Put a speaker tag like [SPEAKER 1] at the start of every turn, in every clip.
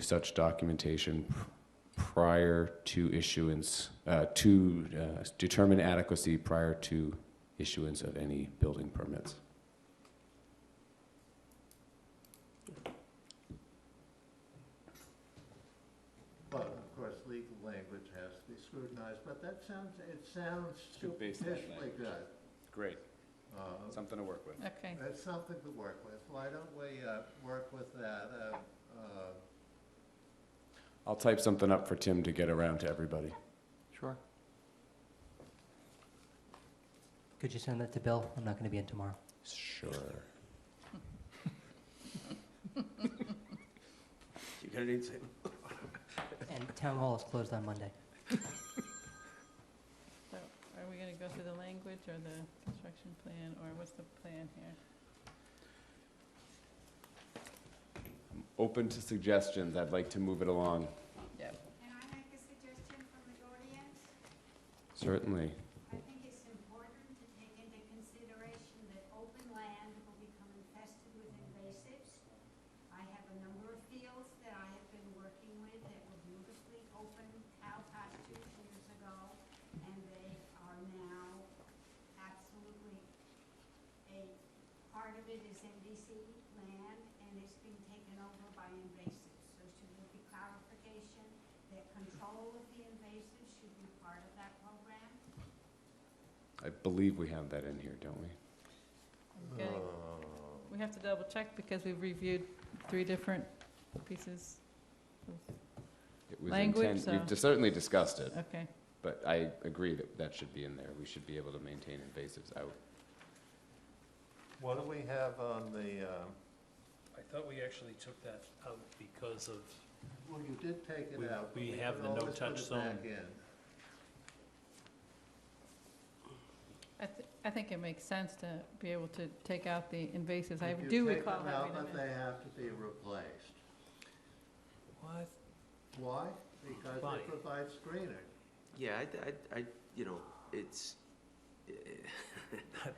[SPEAKER 1] such documentation p- prior to issuance, uh, to uh, determine adequacy prior to issuance of any building permits.
[SPEAKER 2] But of course, legal language has to be scrutinized, but that sounds, it sounds
[SPEAKER 1] Good baseline
[SPEAKER 2] superficially good.
[SPEAKER 1] Great,
[SPEAKER 2] Uh,
[SPEAKER 1] something to work with.
[SPEAKER 3] Okay,
[SPEAKER 2] That's something to work with. Why don't we uh, work with that? uh, uh,
[SPEAKER 1] I'll type something up for Tim to get around to everybody.
[SPEAKER 4] Sure. Could you send that to Bill? I'm not going to be in tomorrow.
[SPEAKER 1] Sure.
[SPEAKER 5] You're gonna need to.
[SPEAKER 4] And town hall is closed on Monday.
[SPEAKER 3] so are we gonna go through the language or the construction plan, or what's the plan here?
[SPEAKER 1] Open to suggestions, I'd like to move it along.
[SPEAKER 3] Yep.
[SPEAKER 6] Can I make a suggestion from the audience?
[SPEAKER 1] Certainly.
[SPEAKER 6] I think it's important to take into consideration that open land will become infested with invasives. I have a number of fields that I have been working with that were beautifully open cow pastures years ago, and they are now absolutely, a, part of it is MDC land, and it's being taken over by invasives. So should there be clarification that control of the invasives should be part of that program?
[SPEAKER 1] I believe we have that in here, don't we?
[SPEAKER 3] Okay.
[SPEAKER 2] Uh.
[SPEAKER 3] We have to double check because we've reviewed three different pieces,
[SPEAKER 1] It was
[SPEAKER 3] Language,
[SPEAKER 1] intent- We've
[SPEAKER 3] so-
[SPEAKER 1] dis- certainly discussed it,
[SPEAKER 3] okay.
[SPEAKER 1] but I agree that that should be in there. We should be able to maintain invasives out.
[SPEAKER 2] What do we have on the, um,
[SPEAKER 5] I thought we actually took that out because of,
[SPEAKER 2] well, you did take
[SPEAKER 5] We-
[SPEAKER 2] it out. but
[SPEAKER 5] we
[SPEAKER 2] you
[SPEAKER 5] have
[SPEAKER 2] can
[SPEAKER 5] the no
[SPEAKER 2] always put
[SPEAKER 5] touch
[SPEAKER 2] it
[SPEAKER 5] zone.
[SPEAKER 2] back in.
[SPEAKER 3] I, th- I think it makes sense to be able to take out the invasives, I
[SPEAKER 2] If you
[SPEAKER 3] do
[SPEAKER 2] take
[SPEAKER 3] recall
[SPEAKER 2] them out,
[SPEAKER 3] having them
[SPEAKER 2] But
[SPEAKER 3] in.
[SPEAKER 2] they have to be replaced.
[SPEAKER 5] what?
[SPEAKER 2] Why? Because
[SPEAKER 5] Why?
[SPEAKER 2] they provide screening.
[SPEAKER 7] Yeah, I, I, I, you know, it's, eh,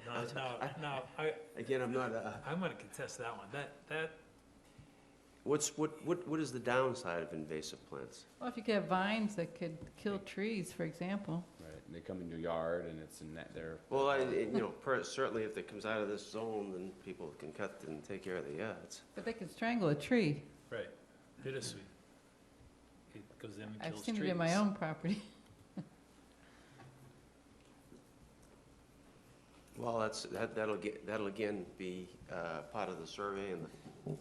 [SPEAKER 5] No, no, no, I,
[SPEAKER 7] again, I'm not, uh,
[SPEAKER 5] I'm gonna contest that one. That, that,
[SPEAKER 7] what's, what, what, what is the downside of invasive plants?
[SPEAKER 3] Well, if you could have vines that could kill trees, for example,
[SPEAKER 1] Right, and they come in your yard and it's in that, they're.
[SPEAKER 7] Well, I, you know, per- certainly if it comes out of this zone, then people can cut and take care of the, yeah, it's,
[SPEAKER 3] but they could strangle a tree.
[SPEAKER 5] right, bittersweet. It goes in and
[SPEAKER 3] I've
[SPEAKER 5] kills trees.
[SPEAKER 3] seen it in my own property.
[SPEAKER 7] well, that's, that, that'll get, that'll again be, uh, part of the survey and the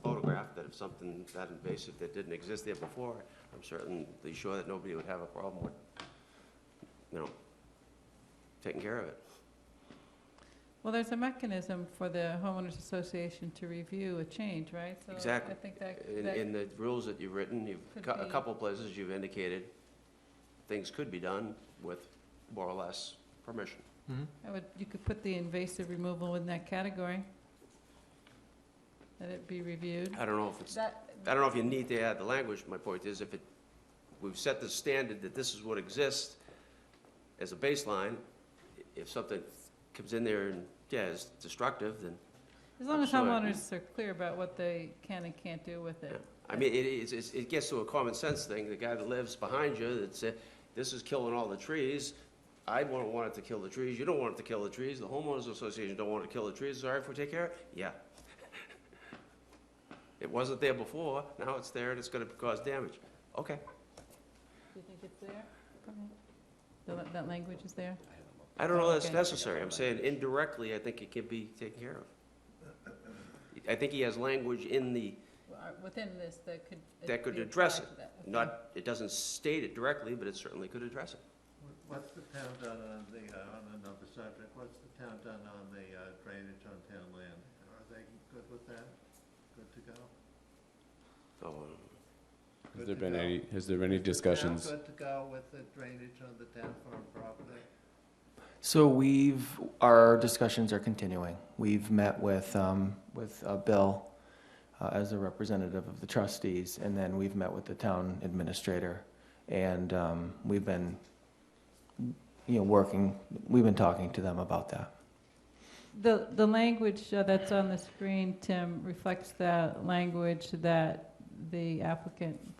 [SPEAKER 7] photograph, that if something that invasive that didn't exist there before, I'm certainly sure that nobody would have a problem with, you know, taking care of it.
[SPEAKER 3] Well, there's a mechanism for the homeowners association to review a change, right?
[SPEAKER 7] Exactly.
[SPEAKER 3] So I think that,
[SPEAKER 7] In,
[SPEAKER 3] that-
[SPEAKER 7] in the rules that you've written, you've,
[SPEAKER 3] Could
[SPEAKER 7] cou- a
[SPEAKER 3] be-
[SPEAKER 7] couple places you've indicated things could be done with more or less permission.
[SPEAKER 3] I would, you could put the invasive removal in that category. Let it be reviewed.
[SPEAKER 7] I don't know if it's, I
[SPEAKER 3] That,
[SPEAKER 7] don't know if you need to add the language, my point is if it, we've set the standard that this is what exists as a baseline, i- if something comes in there and, yeah, is destructive, then,
[SPEAKER 3] as long as
[SPEAKER 7] Sure.
[SPEAKER 3] homeowners are clear about what they can and can't do with
[SPEAKER 7] yeah.
[SPEAKER 3] it.
[SPEAKER 7] I mean, it is, it's- it gets to a common sense thing, the guy that lives behind you that said, this is killing all the trees, I wouldn't want it to kill the trees, you don't want it to kill the trees, the homeowners association don't want it to kill the trees, sorry if we take care of it, yeah. It wasn't there before, now it's there and it's gonna cause damage, okay,
[SPEAKER 3] Do you think it's there? That, that language is there?
[SPEAKER 7] I don't know that's
[SPEAKER 3] Okay.
[SPEAKER 7] necessary, I'm saying indirectly, I think it can be taken care of. I think he has language in the,
[SPEAKER 3] Or uh, Within this, that could.
[SPEAKER 7] That could
[SPEAKER 3] be
[SPEAKER 7] address
[SPEAKER 3] applied to that, okay.
[SPEAKER 7] not, it doesn't state it directly, but it certainly could address it.
[SPEAKER 2] What's the town done on the, uh, on another subject, what's the town done on the uh, drainage on town land? Are they good with that? Good to go?
[SPEAKER 7] So,
[SPEAKER 1] Has there been any, has there been any discussions?
[SPEAKER 2] Town good to go with the drainage on the town farm property?
[SPEAKER 4] So we've, our discussions are continuing. We've met with, um, with uh, Bill uh, as a representative of the trustees, and then we've met with the town administrator. And, um, we've been, you know, working, we've been talking to them about that.
[SPEAKER 3] The, the language uh, that's on the screen, Tim, reflects the language that the applicant